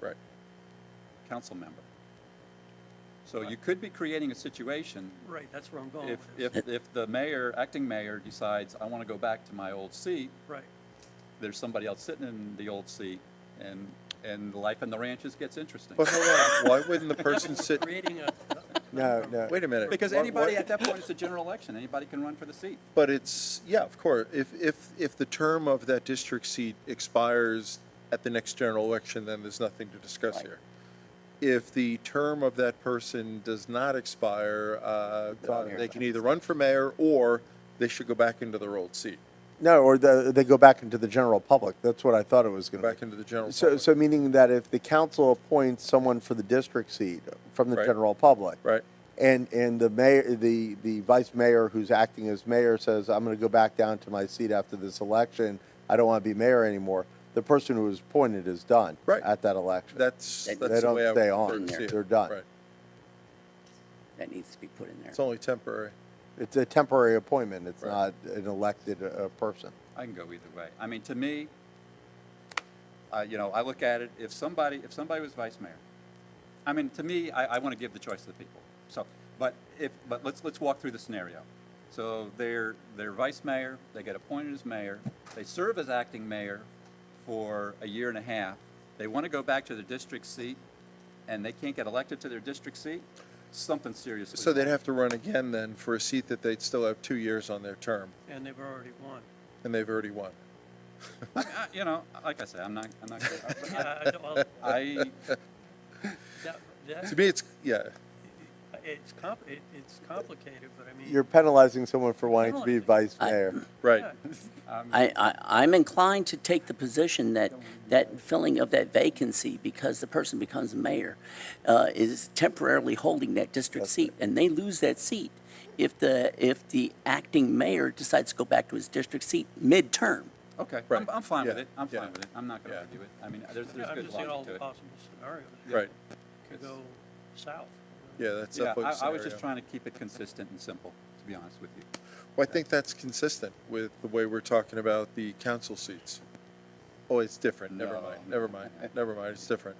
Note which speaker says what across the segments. Speaker 1: Right. council member. So you could be creating a situation
Speaker 2: Right, that's where I'm going
Speaker 1: if,
Speaker 2: with this.
Speaker 1: if, if the mayor, acting mayor decides, I want to go back to my old seat,
Speaker 2: Right,
Speaker 1: there's somebody else sitting in the old seat and, and life in the ranches gets interesting.
Speaker 3: But hold on, why wouldn't the person sit,
Speaker 2: creating a,
Speaker 4: No, no.
Speaker 3: wait a minute.
Speaker 1: Because
Speaker 3: what-
Speaker 1: anybody
Speaker 3: what-
Speaker 1: at that point, it's a general election, anybody can run for the seat.
Speaker 3: But it's, yeah, of course, if, if, if the term of that district seat expires at the next general election, then there's nothing to discuss here. If the term of that person does not expire, uh, they can either run for mayor or they should go back into their old seat,
Speaker 4: No, or the, they go back into the general public. That's what I thought it was
Speaker 3: go
Speaker 4: going
Speaker 3: back
Speaker 4: to
Speaker 3: into the general
Speaker 4: be. So,
Speaker 3: public.
Speaker 4: so meaning that if the council appoints someone for the district seat from the
Speaker 3: Right.
Speaker 4: general public.
Speaker 3: Right.
Speaker 4: And, and the mayor, the, the vice mayor who's acting as mayor says, I'm going to go back down to my seat after this election. I don't want to be mayor anymore. The person who was appointed is done.
Speaker 3: Right.
Speaker 4: At that election.
Speaker 3: That's,
Speaker 5: They-
Speaker 3: that's
Speaker 4: They
Speaker 3: the
Speaker 4: don't
Speaker 3: way I would
Speaker 4: stay
Speaker 3: prefer
Speaker 4: on.
Speaker 3: to see it.
Speaker 4: They're done.
Speaker 3: Right.
Speaker 5: that needs to be put in there.
Speaker 3: It's only temporary.
Speaker 4: It's a temporary appointment. It's
Speaker 3: Right.
Speaker 4: not an elected, uh, person.
Speaker 1: I can go either way. I mean, to me, I, you know, I look at it, if somebody, if somebody was vice mayor, I mean, to me, I, I want to give the choice to the people. So, but if, but let's, let's walk through the scenario. So they're, they're vice mayor, they get appointed as mayor, they serve as acting mayor for a year and a half. They want to go back to their district seat and they can't get elected to their district seat, something seriously.
Speaker 3: So they'd
Speaker 1: wrong.
Speaker 3: have to run again then for a seat that they'd still have two years on their term,
Speaker 2: and they've already won.
Speaker 3: and they've already won.
Speaker 1: I mean, I- You know, like I said, I'm not, I'm not,
Speaker 2: Yeah, I don't- well,
Speaker 1: I,
Speaker 2: that- that-
Speaker 3: To me, it's, yeah,
Speaker 2: It's compl, it- it's complicated, but I mean.
Speaker 4: You're penalizing someone for wanting to be vice
Speaker 5: I-
Speaker 4: mayor.
Speaker 3: right.
Speaker 5: I, I, I'm inclined to take the position that, that filling of that vacancy, because the person becomes mayor, uh, is temporarily holding that district seat, and they lose that seat if the, if the acting mayor decides to go back to his district seat midterm.
Speaker 1: Okay, I'm,
Speaker 3: Right.
Speaker 1: I'm fine with
Speaker 3: Yeah.
Speaker 1: it, I'm
Speaker 3: Yeah.
Speaker 1: fine with it, I'm not gonna
Speaker 3: Yeah.
Speaker 1: argue it, I mean, there's,
Speaker 2: Yeah,
Speaker 1: there's
Speaker 2: I'm
Speaker 1: good
Speaker 2: just seeing all
Speaker 1: logic to
Speaker 2: the
Speaker 1: it.
Speaker 2: possible scenarios.
Speaker 3: Right.
Speaker 2: Could go south.
Speaker 3: Yeah, that's
Speaker 1: Yeah,
Speaker 3: definitely a
Speaker 1: I, I was just
Speaker 3: scenario.
Speaker 1: trying to keep it consistent and simple, to be honest with you.
Speaker 3: Well, I think that's consistent with the way we're talking about the council seats. Oh, it's different. Never
Speaker 1: No.
Speaker 3: mind. Never mind. Never mind. It's different.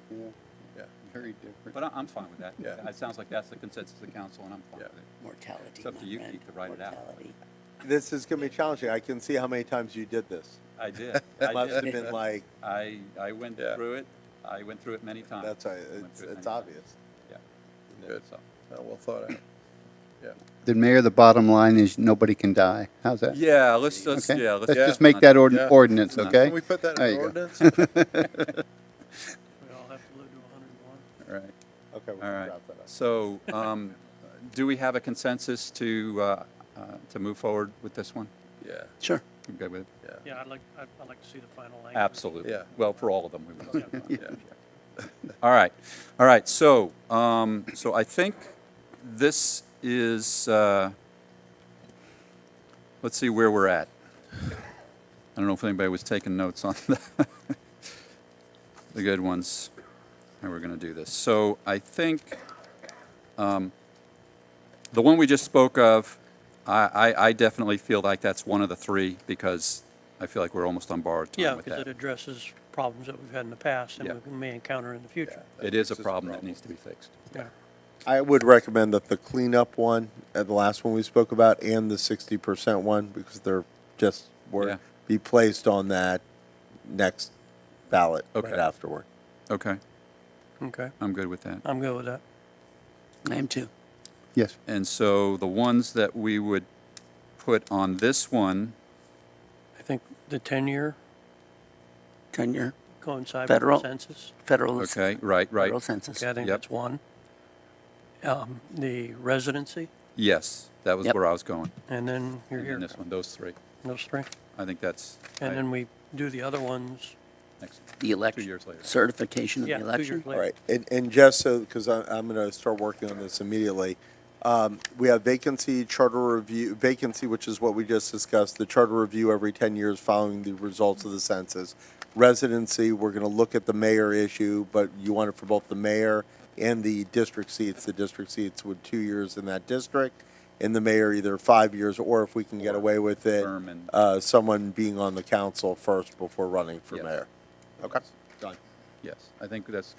Speaker 3: Yeah.
Speaker 1: Very different. But I, I'm fine with that,
Speaker 3: Yeah.
Speaker 1: it sounds like that's the consensus of the council, and I'm fine
Speaker 3: Yeah.
Speaker 1: with it.
Speaker 5: Mortality,
Speaker 1: It's up
Speaker 5: my
Speaker 1: to you,
Speaker 5: friend,
Speaker 1: Keith, to write it out.
Speaker 5: mortality.
Speaker 4: This is going to be challenging. I can see how many times you did this.
Speaker 1: I did, I
Speaker 4: Must have
Speaker 1: did,
Speaker 4: been like,
Speaker 1: I, I went
Speaker 3: Yeah.
Speaker 1: through it, I went through it many times.
Speaker 4: that's, a-
Speaker 1: I went
Speaker 4: it's,
Speaker 1: through it
Speaker 4: it's
Speaker 1: many
Speaker 4: obvious.
Speaker 1: times. Yeah,
Speaker 3: Good.
Speaker 1: so.
Speaker 3: Oh, well thought out. Yeah.
Speaker 6: The mayor, the bottom line is nobody can die. How's that?
Speaker 1: Yeah, let's, let's,
Speaker 6: Okay?
Speaker 1: yeah,
Speaker 6: Let's
Speaker 1: let's.
Speaker 6: just make that
Speaker 3: Yeah.
Speaker 6: ordin- ordinance,
Speaker 1: No.
Speaker 6: okay?
Speaker 3: Can we put that in
Speaker 6: There you
Speaker 3: an
Speaker 6: go.
Speaker 3: ordinance?
Speaker 2: We all have to live to 101.
Speaker 1: Right.
Speaker 4: Okay, we're
Speaker 1: All
Speaker 4: going to
Speaker 1: right.
Speaker 4: wrap that up.
Speaker 1: So, um, do we have a consensus to, uh, uh, to move forward with this one?
Speaker 3: Yeah,
Speaker 5: Sure.
Speaker 1: You good with it?
Speaker 3: yeah,
Speaker 2: Yeah, I'd like, I'd I'd like to see the final language.
Speaker 1: Absolutely.
Speaker 3: Yeah.
Speaker 1: Well, for all of them, we would.
Speaker 3: yeah.
Speaker 1: All right, all right, so, um, so I think this is, uh, let's see where we're at. I don't know if anybody was taking notes on the, the good ones, how we're gonna do this. So I think, um, the one we just spoke of, I, I, I definitely feel like that's one of the three, because I feel like we're almost on borrowed
Speaker 2: Yeah,
Speaker 1: time with
Speaker 2: because it
Speaker 1: that.
Speaker 2: addresses problems that we've had in the past
Speaker 1: Yeah.
Speaker 2: and we may encounter in the future.
Speaker 1: It is a problem that needs to be fixed.
Speaker 2: Yeah.
Speaker 4: I would recommend that the cleanup one, uh, the last one we spoke about, and the sixty percent one, because they're just,
Speaker 1: Yeah.
Speaker 4: were, be placed on that next ballot right
Speaker 1: Okay.
Speaker 4: afterward.
Speaker 1: Okay,
Speaker 2: Okay,
Speaker 1: I'm good with that.
Speaker 2: I'm good with that.
Speaker 5: I am too.
Speaker 6: Yes.
Speaker 1: And so the ones that we would put on this one,
Speaker 2: I think the 10-year
Speaker 5: Tenure,
Speaker 2: coincides with the
Speaker 5: Federal.
Speaker 2: census.
Speaker 5: federal.
Speaker 1: okay, right, right,
Speaker 5: Federal census.
Speaker 2: Okay, I think
Speaker 1: Yep.
Speaker 2: that's one. Um, The residency,
Speaker 1: yes, that was
Speaker 5: Yep.
Speaker 1: where I was going.
Speaker 2: and then you're
Speaker 1: And then
Speaker 2: here,
Speaker 1: this one, those three.
Speaker 2: those three.
Speaker 1: I think that's, I-
Speaker 2: And then we do the other ones.
Speaker 1: next,
Speaker 5: The election.
Speaker 1: two years later.
Speaker 5: Certification of
Speaker 2: Yeah,
Speaker 5: the
Speaker 2: two
Speaker 5: election.
Speaker 2: years later.
Speaker 4: All right, and, and just so, because I'm, I'm going to start working on this immediately. Um, we have vacancy, charter review, vacancy, which is what we just discussed, the charter review every ten years following the results of the census. Residency, we're going to look at the mayor issue, but you want it for both the mayor and the district seats. The district seats with two years in that district, and the mayor either five years, or if we can get away with it,
Speaker 1: term and-
Speaker 4: uh, someone being on the council first before running for
Speaker 1: Yeah.
Speaker 4: mayor. Okay. Done.
Speaker 1: Yes, I think that's